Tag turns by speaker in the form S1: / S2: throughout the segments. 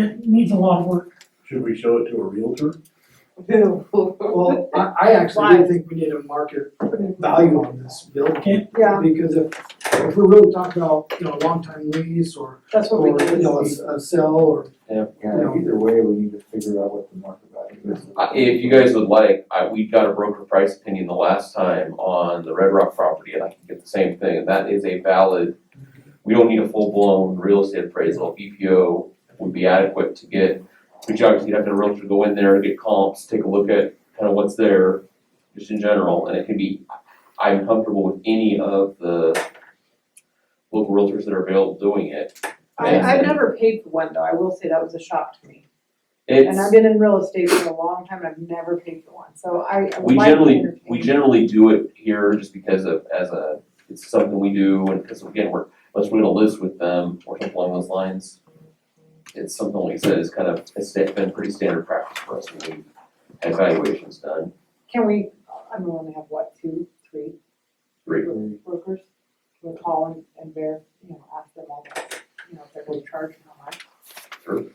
S1: It needs a lot of work.
S2: Should we show it to a realtor?
S3: Well, I, I actually do think we need a market value on this building.
S1: Okay.
S4: Yeah.
S3: Because if, if we're really talking about, you know, a long-time lease or,
S4: That's what
S3: or,
S4: we
S3: you
S4: do.
S3: know, a, s- a sell or,
S5: Yeah,
S3: No.
S5: either way, we need to figure out what the market value is.
S6: Uh, If you guys would like, I, we got a broker price opinion the last time on the Red Rock property, and I can get the same thing, and that is a valid, we don't need a full-blown real estate appraisal, BPO would be adequate to get, which obviously you'd have to realtor go in there, get comps, take a look at kind of what's there, just in general, and it can be, I'm comfortable with any of the local realtors that are available doing it.
S4: I, I've
S6: And
S4: never paid for one though, I will say that was a shock to me.
S6: It's.
S4: And I've been in real estate for a long time, and I've never paid for one, so I I would
S6: We
S4: like to
S6: generally,
S4: entertain.
S6: we generally do it here just because of, as a, it's something we do, and because again, we're, unless we're gonna list with them or something along those lines. It's something like I said, is kind of, it's sta- been pretty standard practice for us when we had evaluations done.
S4: Can we, I'm willing to have what, two, three
S6: Three.
S4: brokers? We'll call and, and bear, you know, ask them all, that, you know, if they're going to charge and how much.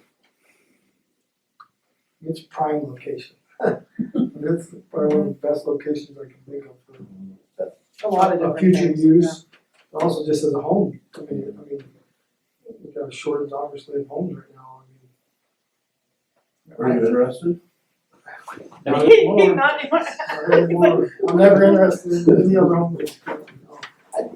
S3: it's prime location. That's probably one of the best locations I can think of for
S4: A lot of
S3: a
S4: different
S3: future
S4: things, yeah.
S3: use, and also just as a home, I mean, I mean, we've got a shortage obviously of homes right now, I mean.
S2: Are you interested?
S4: Not anymore.
S3: I'm never interested in any other home. based building, no.
S4: Uh,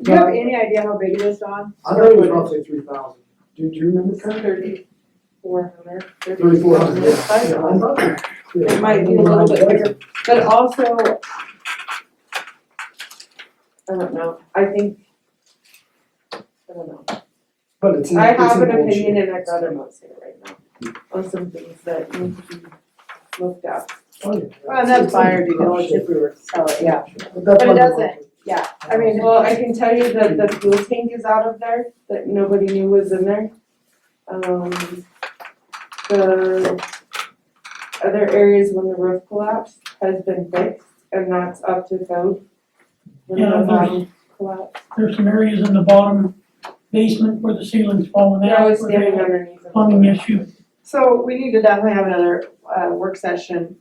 S4: Do you have any idea how big it is, Don?
S3: I thought it was roughly three thousand. Do, do you remember
S4: It's thirty-four hundred.
S3: Thirty-four hundred, yeah.
S4: Size
S3: Yeah, I
S4: one.
S3: thought it- yeah,
S4: It might be a
S3: I
S4: little bit
S3: remember
S4: bigger, but also. I don't know, I think. I don't know,
S3: But it's. in-
S7: I
S3: it's
S7: have
S3: in
S7: an
S3: old shape.
S7: opinion and I'd rather not say it right now on some things that need to be looked at.
S3: Oh, yeah.
S4: well, that's buyer
S3: It's
S4: due
S3: in good
S4: diligence, if
S3: shape.
S4: we were to sell it, yeah,
S3: But that's
S4: But it
S3: why the
S4: doesn't.
S3: market-
S4: yeah,
S7: I mean, well, I can tell you that the fuel tank is out of there, that nobody knew was in there. Um, the other areas when the roof collapsed has been fixed and that's up to code. When
S1: Yeah,
S7: the
S1: there's-
S7: bottom collapsed,
S1: There's some areas in the bottom basement where the ceiling's fallen
S7: they're
S1: out.
S7: always
S1: where they
S7: standing
S1: have
S7: underneath it.
S1: Plumbing issue.
S4: So we need to definitely have another uh work session,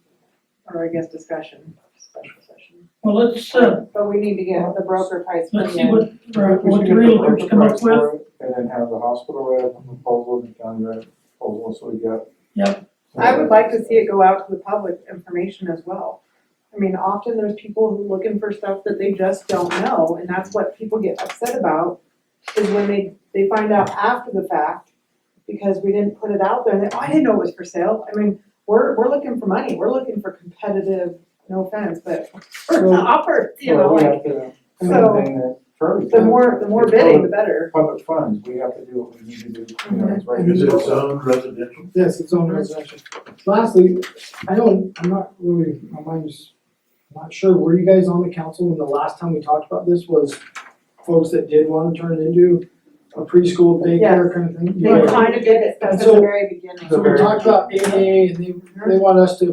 S4: or I guess discussion, special session.
S1: Well, let's, uh,
S4: But we need to get the broker price
S1: let's
S4: put
S1: see
S4: in,
S1: what, or
S5: We
S1: what
S5: should
S1: the
S5: get the
S1: realtors come up
S5: price
S1: with.
S5: for it, And then have the hospital write up a proposal, the county write up a proposal, so we got.
S1: Yep.
S4: I would like to see it go out to the public information as well. I mean, often there's people who looking for stuff that they just don't know, and that's what people get upset about, is when they they find out after the fact, because we didn't put it out there, and they, oh, I didn't know it was for sale, I mean, we're we're looking for money, we're looking for competitive, no offense, but for an
S5: Well,
S4: offer, you know,
S5: Well, we
S4: like,
S5: have to,
S4: so-
S5: same thing uh, that Kirby
S4: the
S5: said,
S4: more, the more
S5: it's
S4: bidding, Mhm. the
S5: public-
S4: better.
S5: Public funds, we have to do what we need to do, you know, it's right.
S2: Is it zoned residential?
S3: Yes, it's own residential. Lastly, I don't, I'm not really, my mind's not sure, were you guys on the council when the last time we talked about this was folks that did wanna turn it into a preschool daycare
S4: Yes.
S3: kind of thing?
S4: They were trying to get it
S3: And
S4: from the
S3: so-
S4: very beginning.
S3: So we talked about AA and they, they want us to,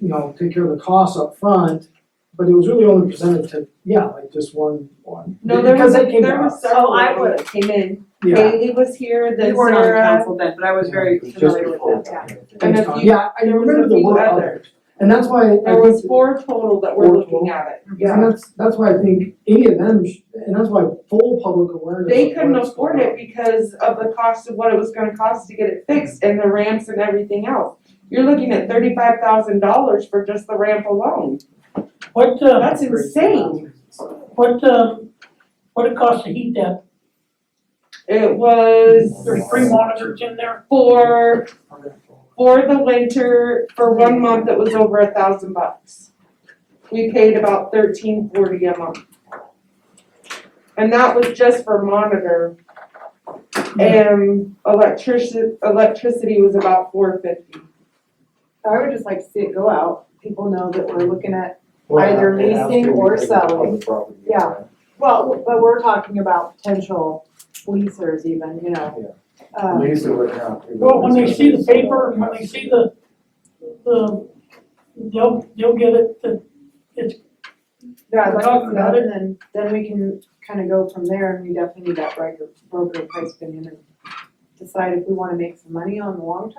S3: you know, take care of the costs up front, but it was really only presented to, yeah, like just one, one.
S7: No, there
S3: Because
S7: was, a-
S3: they came
S7: there
S3: to
S7: was
S3: us.
S7: several
S4: Oh, I
S7: people that came in,
S3: Yeah.
S7: Bailey was here, then Sarah.
S4: You weren't on council then, but I was very
S5: It just
S4: familiar
S5: before
S4: with that, yeah.
S5: that.
S7: And a
S3: Thanks, Tom.
S7: few-
S3: Yeah, I
S7: there was a
S3: remember the
S7: few
S3: word
S7: others.
S3: others. And that's why. I
S7: There was
S3: think-
S7: four total that were
S3: Four
S7: looking
S3: total.
S7: at it.
S3: Yeah, and that's, that's why I think any of them, sh- and that's why full public awareness.
S7: They
S3: of
S7: couldn't
S3: what's
S7: afford
S3: going
S7: it because of the cost of what it was gonna cost to get it fixed and the ramps and everything else. You're looking at thirty-five thousand dollars for just the ramp alone.
S1: What, uh,
S7: That's insane.
S1: what, uh, what it costs to heat that?
S7: It was
S1: There's three monitors in there.
S7: for,
S3: on.
S7: for the winter, for one month, it was over a thousand bucks. We paid about thirteen forty a month. And that was just for monitor. And electricity, electricity was about four fifty.
S4: I would just like to see it go out, people know that we're looking at,
S5: Well,
S4: Either
S5: it has to
S4: leasing
S5: be
S4: or
S5: taken from the
S4: selling.
S5: property,
S4: Yeah.
S5: right?
S4: well, but we're talking about potential leasers even, you know. Um,
S5: Lease it would have to.
S1: Well, when they see the paper, and when they see the, the, they'll, they'll get it, that it's
S4: yeah, I'd like to
S1: Talking
S4: see that,
S1: about it.
S4: and then, then we can kind of go from there, and we definitely need that broker, broker price opinion and decide if we wanna make some money on the long term